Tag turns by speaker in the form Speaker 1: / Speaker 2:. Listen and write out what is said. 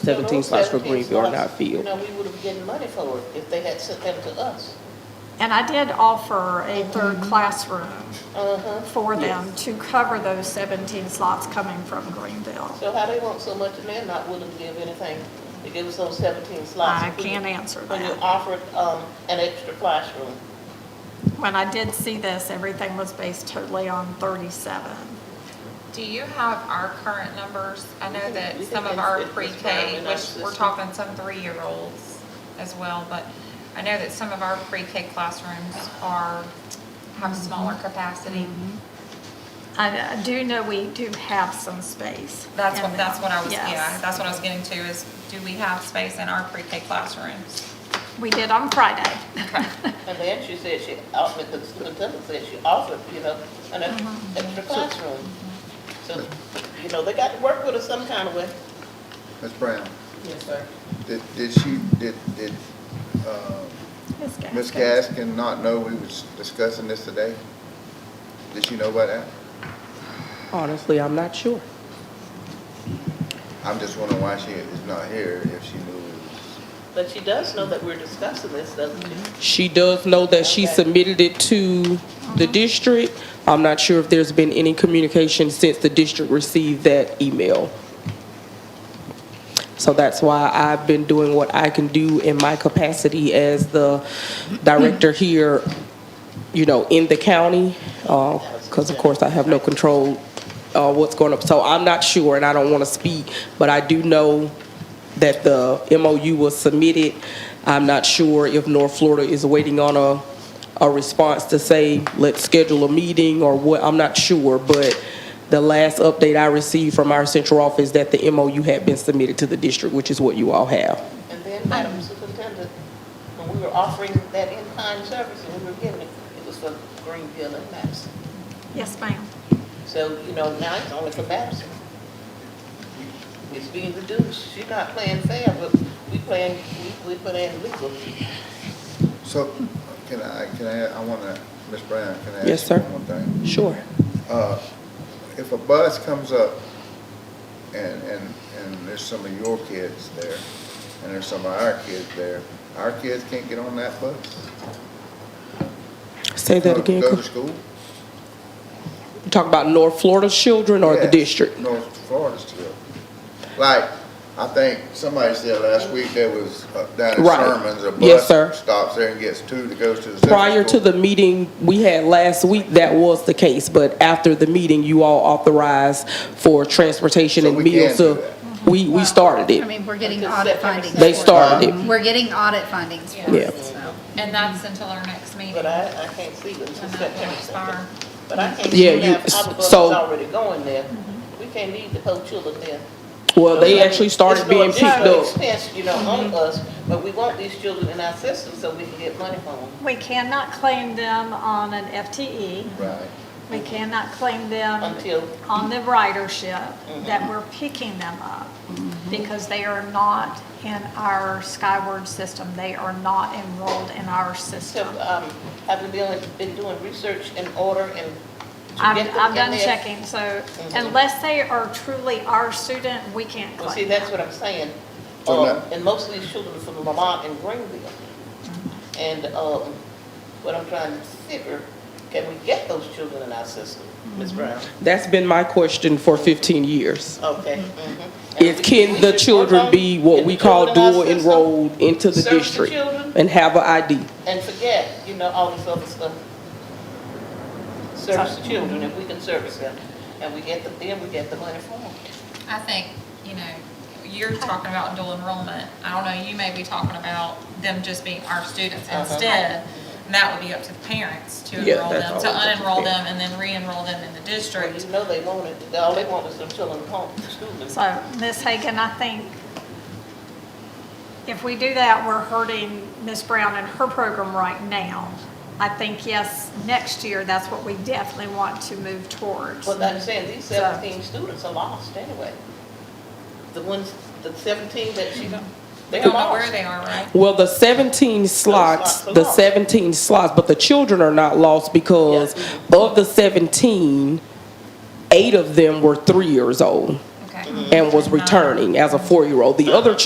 Speaker 1: seventeen spots for Greenfield are not
Speaker 2: You
Speaker 1: filled.
Speaker 2: know, we would have getting money for it if they had sent them to us.
Speaker 3: And I did offer a third
Speaker 4: Mm-hmm.
Speaker 3: classroom
Speaker 2: Uh-huh.
Speaker 3: for them to cover those 17 slots coming from Greenville.
Speaker 2: So how they want so much and they're not willing to give anything to give us those seventeen slots?
Speaker 3: I
Speaker 2: when you-
Speaker 3: can't answer
Speaker 2: When you
Speaker 3: that.
Speaker 2: offered, um, an extra classroom.
Speaker 3: When I did see this, everything was based totally on 37.
Speaker 4: Do you have our current numbers? I know that
Speaker 2: You
Speaker 4: some
Speaker 2: can
Speaker 4: of our
Speaker 2: insert this down
Speaker 4: pre-K,
Speaker 2: in our
Speaker 4: which we're
Speaker 2: system.
Speaker 4: talking some three-year-olds as well, but I know that some of our pre-K classrooms are,
Speaker 2: Mm-hmm.
Speaker 4: have smaller capacity.
Speaker 3: I I do know we do have some space.
Speaker 4: That's
Speaker 3: in
Speaker 4: what, that's
Speaker 3: there.
Speaker 4: what I was,
Speaker 3: Yes.
Speaker 4: yeah, that's what I was getting to is, do we have space in our pre-K classrooms?
Speaker 3: We did on Friday.
Speaker 2: And then she said she, uh, the superintendent said she offered, you know, an
Speaker 3: Uh-huh.
Speaker 2: ex- extra classroom. So, you know, they got to work with us some kind of way.
Speaker 5: Ms. Brown,
Speaker 2: Yes, sir.
Speaker 5: did, did she, did, did, uh,
Speaker 3: Ms. Gaskins.
Speaker 5: Ms. Gaskin not know we was discussing this today? Did she know about that?
Speaker 1: Honestly, I'm not sure.
Speaker 5: I'm just wondering why she is not here if she knew. it was-
Speaker 2: But she does know that we're discussing this, doesn't she?
Speaker 1: She does know that she
Speaker 2: Okay.
Speaker 1: submitted it to the district. I'm not sure if there's been any communication since the district received that email. So that's why I've been doing what I can do in my capacity as the director here, you know, in the county, because of course I have no control uh, what's going up. So I'm not sure, and I don't want to speak, but I do know that the MOU was submitted. I'm not sure if North Florida is waiting on a, a response to say, let's schedule a meeting or what, I'm not sure. But the last update I received from our central office that the MOU had been submitted to the district, which is what you all have.
Speaker 2: And then, Madam Superintendent, when we were offering that in-kind service, and we were giving it, it was for Greenville and Madison.
Speaker 3: Yes, ma'am.
Speaker 2: So, you know, now it's only for Madison. It's being reduced, she's not playing fair, but we playing, we, we playing legal.
Speaker 5: So, can I, can I, I wanna, Ms. Brown, can I ask?
Speaker 1: Yes,
Speaker 5: you
Speaker 1: sir.
Speaker 5: One more thing.
Speaker 1: Sure.
Speaker 5: Uh, If a bus comes up and, and, and there's some of your kids there, and there's some of our kids there, our kids can't get on that bus?
Speaker 1: Say that
Speaker 5: Go-
Speaker 1: again.
Speaker 5: Go to school?
Speaker 1: Talk about North Florida children or the
Speaker 5: Yes,
Speaker 1: district?
Speaker 5: North Florida still. Like, I think somebody said last week there was uh, down in
Speaker 1: Right.
Speaker 5: Sherman's, a
Speaker 1: Yes, sir.
Speaker 5: bus stops there and gets two that goes to the. central
Speaker 1: Prior to
Speaker 5: school.
Speaker 1: the meeting we had last week, that was the case, but after the meeting, you all authorized for transportation
Speaker 5: So
Speaker 1: and
Speaker 5: we can
Speaker 1: meals.
Speaker 5: do
Speaker 1: to-
Speaker 5: that.
Speaker 1: We, we started
Speaker 6: I
Speaker 1: it.
Speaker 6: mean, we're getting
Speaker 2: Until
Speaker 6: audit
Speaker 2: September
Speaker 6: findings.
Speaker 1: They
Speaker 2: Huh?
Speaker 1: started it.
Speaker 6: We're getting audit findings for
Speaker 1: Yeah.
Speaker 6: it, so.
Speaker 2: Mm-hmm.
Speaker 4: And that's until our next meeting.
Speaker 2: But I, I can't see it until
Speaker 4: And that will expire.
Speaker 2: September. But I
Speaker 1: Yeah,
Speaker 2: can't see
Speaker 1: you-
Speaker 2: now, our bus is
Speaker 1: so-
Speaker 2: already going there. We can't leave the whole children there.
Speaker 1: Well, they actually started being picked up.
Speaker 2: It's no additional expense, you know, on us, but we want these children in our system so we can get money from them.
Speaker 3: We cannot claim them on an FTE.
Speaker 5: Right.
Speaker 3: We cannot claim them
Speaker 2: Until-
Speaker 3: on the ridership
Speaker 2: Mm-hmm.
Speaker 3: that we're picking them up because they are not in our Skyward system. They are not enrolled in our
Speaker 2: So,
Speaker 3: system.
Speaker 2: um, I've been doing, been doing research in order and. to
Speaker 3: I'm,
Speaker 2: get them
Speaker 3: I'm
Speaker 2: in
Speaker 3: done
Speaker 2: there.
Speaker 3: checking, so unless they are truly our student, we can't
Speaker 2: Mm-hmm. Well, see,
Speaker 3: claim
Speaker 2: that's
Speaker 3: them.
Speaker 2: what I'm saying.
Speaker 5: So
Speaker 2: Uh,
Speaker 5: now-
Speaker 2: And most of these children are from Lamont and Greenville. And um, what I'm trying to figure, can we get those children in our system, Ms. Brown?
Speaker 1: That's been my question for 15 years.
Speaker 2: Okay. mhm. And
Speaker 1: Is
Speaker 2: we-
Speaker 1: can
Speaker 2: we
Speaker 1: the
Speaker 2: should work
Speaker 1: children
Speaker 2: on
Speaker 1: be what
Speaker 2: getting
Speaker 1: we
Speaker 2: the
Speaker 1: call
Speaker 2: children in
Speaker 1: dual
Speaker 2: our system
Speaker 1: enrolled into the
Speaker 2: Serve the
Speaker 1: district?
Speaker 2: children.
Speaker 1: And have an ID?
Speaker 2: And forget, you know, all this other stuff. Service the children, if we can service them, and we get the, then we get the money for them.
Speaker 4: I think, you know, you're talking about dual enrollment. I don't know, you may be talking about them just being our students
Speaker 2: Uh-huh.
Speaker 4: instead. And that would be up to the parents to
Speaker 1: Yeah,
Speaker 4: enroll
Speaker 1: that's
Speaker 4: them,
Speaker 1: always
Speaker 4: to
Speaker 1: up to the
Speaker 4: unenroll them and then re-enroll them in the district.
Speaker 2: You know they want it, all they want is them children home, school.
Speaker 3: So, Ms. Hagan, I think if we do that, we're hurting Ms. Brown and her program right now. I think, yes, next year, that's what we definitely want to move towards.
Speaker 2: Well, I'm saying, these
Speaker 3: So-
Speaker 2: seventeen students are lost anyway. The ones, the seventeen that she,
Speaker 4: We
Speaker 2: they're
Speaker 4: don't know where
Speaker 2: lost.
Speaker 4: they are, right?
Speaker 1: Well, the 17 slots,
Speaker 2: slots are
Speaker 1: the
Speaker 2: lost.
Speaker 1: 17 slots, but the children are not lost because of the 17, eight of them were three years old. Mm-hmm.
Speaker 4: Okay.
Speaker 2: Mm-hmm.
Speaker 1: and was returning as a four-year-old. The other